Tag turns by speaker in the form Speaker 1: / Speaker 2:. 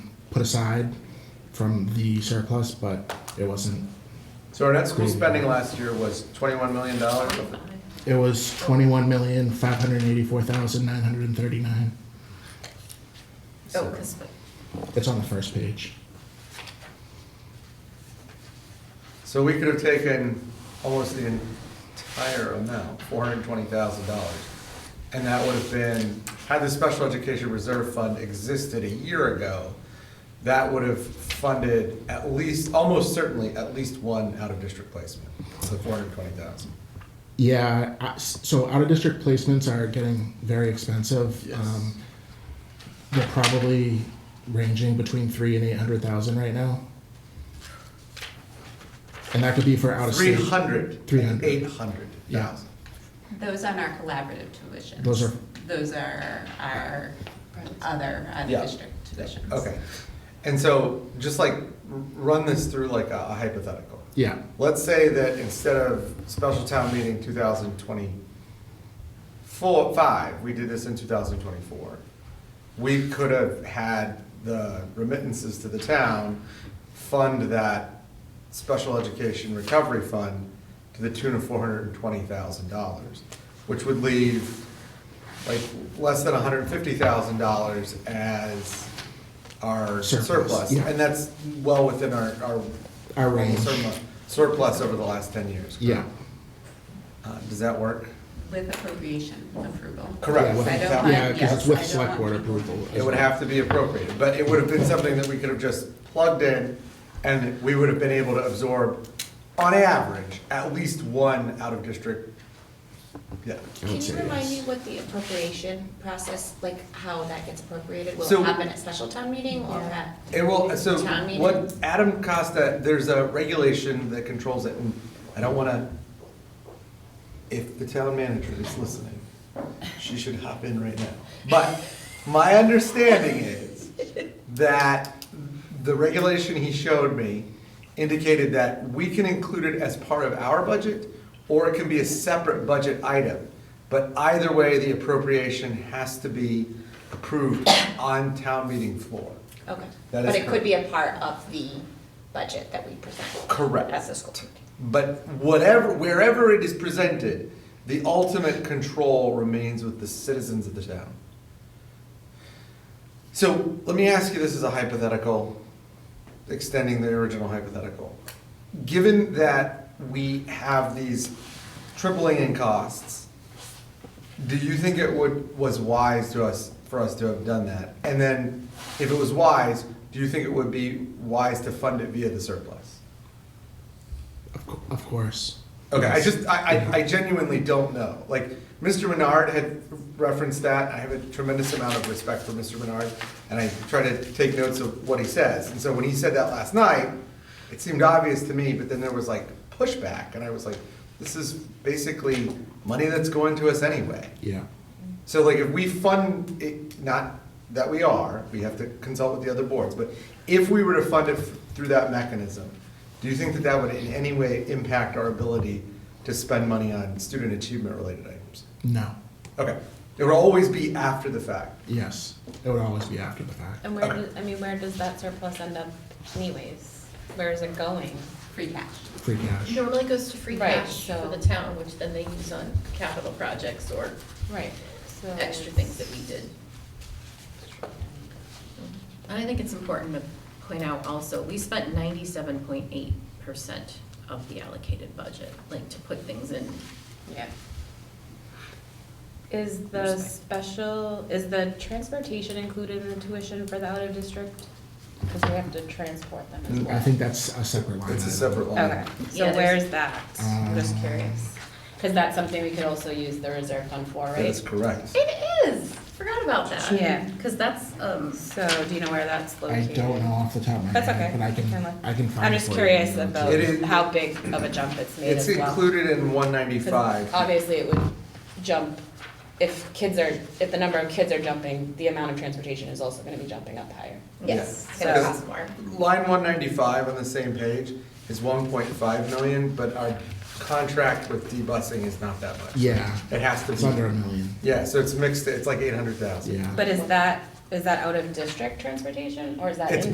Speaker 1: put aside from the surplus, but it wasn't.
Speaker 2: So our net school spending last year was twenty-one million dollars.
Speaker 3: Oh,
Speaker 1: It was twenty-one million, five hundred and eighty-four thousand, nine hundred and thirty-nine.
Speaker 4: Oh, because,
Speaker 1: It's on the first page.
Speaker 2: So we could have taken almost the entire amount, four hundred and twenty thousand dollars. And that would have been, had the special education reserve fund existed a year ago, that would have funded at least, almost certainly, at least one out-of-district placement, so four hundred and twenty thousand.
Speaker 1: Yeah, I- so out of district placements are getting very expensive.
Speaker 2: Yes.
Speaker 1: Um, They're probably ranging between three and eight hundred thousand right now. And that could be for out of
Speaker 2: Three
Speaker 1: state.
Speaker 2: hundred.
Speaker 1: 300.
Speaker 2: Eight hundred
Speaker 1: Yeah.
Speaker 2: thousand.
Speaker 4: those aren't our collaborative tuitions.
Speaker 1: Those are-
Speaker 4: Those are our other
Speaker 2: Yeah.
Speaker 4: out-of-district tuitions.
Speaker 2: Okay. And so, just like, r- run this through like a a hypothetical.
Speaker 1: Yeah,
Speaker 2: Let's say that instead of special town meeting 2024, five, we did this in 2024. We could have had the remittances to the town fund that special education recovery fund to the tune of $420,000, which would leave like less than $150,000 as our
Speaker 1: Surplus,
Speaker 2: surplus.
Speaker 1: yeah.
Speaker 2: And that's well within our, our
Speaker 1: our range.
Speaker 2: surplus- Surplus over the last 10 years.
Speaker 1: Yeah,
Speaker 2: Uh, Does that work?
Speaker 4: With appropriation approval.
Speaker 2: Correct.
Speaker 1: Yeah, with-
Speaker 4: I don't want-
Speaker 1: yeah, because
Speaker 4: yes,
Speaker 1: it's
Speaker 4: I
Speaker 1: with
Speaker 4: don't
Speaker 1: select
Speaker 4: want
Speaker 1: board
Speaker 4: people-
Speaker 1: approval. as
Speaker 2: It would
Speaker 1: well.
Speaker 2: have to be appropriated, but it would have been something that we could have just plugged in and we would have been able to absorb, on average, at least one out-of-district. Yeah.
Speaker 1: I would
Speaker 5: Can you
Speaker 1: say
Speaker 5: remind me
Speaker 1: yes.
Speaker 5: what the appropriation process, like how that gets appropriated? Will
Speaker 2: So-
Speaker 5: it happen at special town meeting or at?
Speaker 2: It will, Eh, so
Speaker 5: Town meeting?
Speaker 2: what Adam Costa, there's a regulation that controls it and I don't want to, if the town manager is listening, she should hop in right now. But my understanding is that the regulation he showed me indicated that we can include it as part of our budget or it can be a separate budget item. But either way, the appropriation has to be approved on town meeting floor.
Speaker 5: Okay,
Speaker 2: That is
Speaker 5: but it could be a part of the budget that we present.
Speaker 2: Correct.
Speaker 5: As a school. committee.
Speaker 2: But whatever, wherever it is presented, the ultimate control remains with the citizens of the town. So let me ask you this as a hypothetical, extending the original hypothetical. Given that we have these tripling in costs, do you think it would, was wise to us, for us to have done that? And then, if it was wise, do you think it would be wise to fund it via the surplus?
Speaker 1: Of cou- Of course.
Speaker 2: Okay, I
Speaker 1: Yes.
Speaker 2: just, I, I, I genuinely don't know. Like, Mr. Menard had referenced that. I have a tremendous amount of respect for Mr. Menard, and I try to take notes of what he says. And so when he said that last night, it seemed obvious to me, but then there was like pushback, and I was like, this is basically money that's going to us anyway.
Speaker 1: Yeah,
Speaker 2: So like if we fund it, not that we are, we have to consult with the other boards, but if we were to fund it through that mechanism, do you think that that would in any way impact our ability to spend money on student achievement related items?
Speaker 1: no,
Speaker 2: Okay, it would always be after the fact.
Speaker 1: yes. It would always be after the fact.
Speaker 3: And where does, I mean, where does that surplus end up anyways? Where is it going?
Speaker 4: Free cash.
Speaker 1: Free cash.
Speaker 6: Normally goes to free
Speaker 3: Right,
Speaker 6: cash for the
Speaker 3: so-
Speaker 6: town, which then they use on capital projects or
Speaker 3: Right, so.
Speaker 6: extra things that we did. And I think it's important to point out also, we spent ninety-seven point eight percent of the allocated budget, like to put things in.
Speaker 4: Yeah.
Speaker 3: Is the special, is the transportation included in the tuition for the out of district? Because we have to transport them as well.
Speaker 1: I think that's a separate line.
Speaker 2: It's a
Speaker 1: item.
Speaker 2: separate
Speaker 3: Okay,
Speaker 2: line.
Speaker 3: so
Speaker 6: Yeah, there's-
Speaker 3: where's that? I'm just
Speaker 1: Um,
Speaker 3: curious. Because that's something we could also use the reserve fund for,
Speaker 2: That is
Speaker 3: right?
Speaker 2: correct.
Speaker 6: It is, forgot about that.
Speaker 3: Yeah.
Speaker 6: Cause that's, um,
Speaker 3: So do you know where that's
Speaker 1: I
Speaker 3: located?
Speaker 1: don't know off the top of my head.
Speaker 3: That's okay.
Speaker 1: But I can,
Speaker 3: look.
Speaker 1: I can find.
Speaker 3: I'm
Speaker 1: it
Speaker 3: just
Speaker 1: for you.
Speaker 3: curious about
Speaker 2: It is-
Speaker 3: how big of a jump it's made
Speaker 2: It's
Speaker 3: as well.
Speaker 2: included in one
Speaker 3: 'Cause
Speaker 2: ninety-five.
Speaker 3: Obviously, it would jump, if kids are, if the number of kids are jumping, the amount of transportation is also gonna be jumping up higher.
Speaker 6: yes,
Speaker 2: Yeah.
Speaker 6: so
Speaker 3: So-
Speaker 6: it's more.
Speaker 2: Line one ninety-five on the same page is one point five million, but our contract with D-busing is not that much.
Speaker 1: Yeah,
Speaker 2: It has to
Speaker 1: it's under a
Speaker 2: be,
Speaker 1: million.
Speaker 2: yeah, so it's mixed, it's like eight hundred thousand.
Speaker 1: Yeah.
Speaker 3: But is that, is that out of district transportation, or is that in?
Speaker 2: It's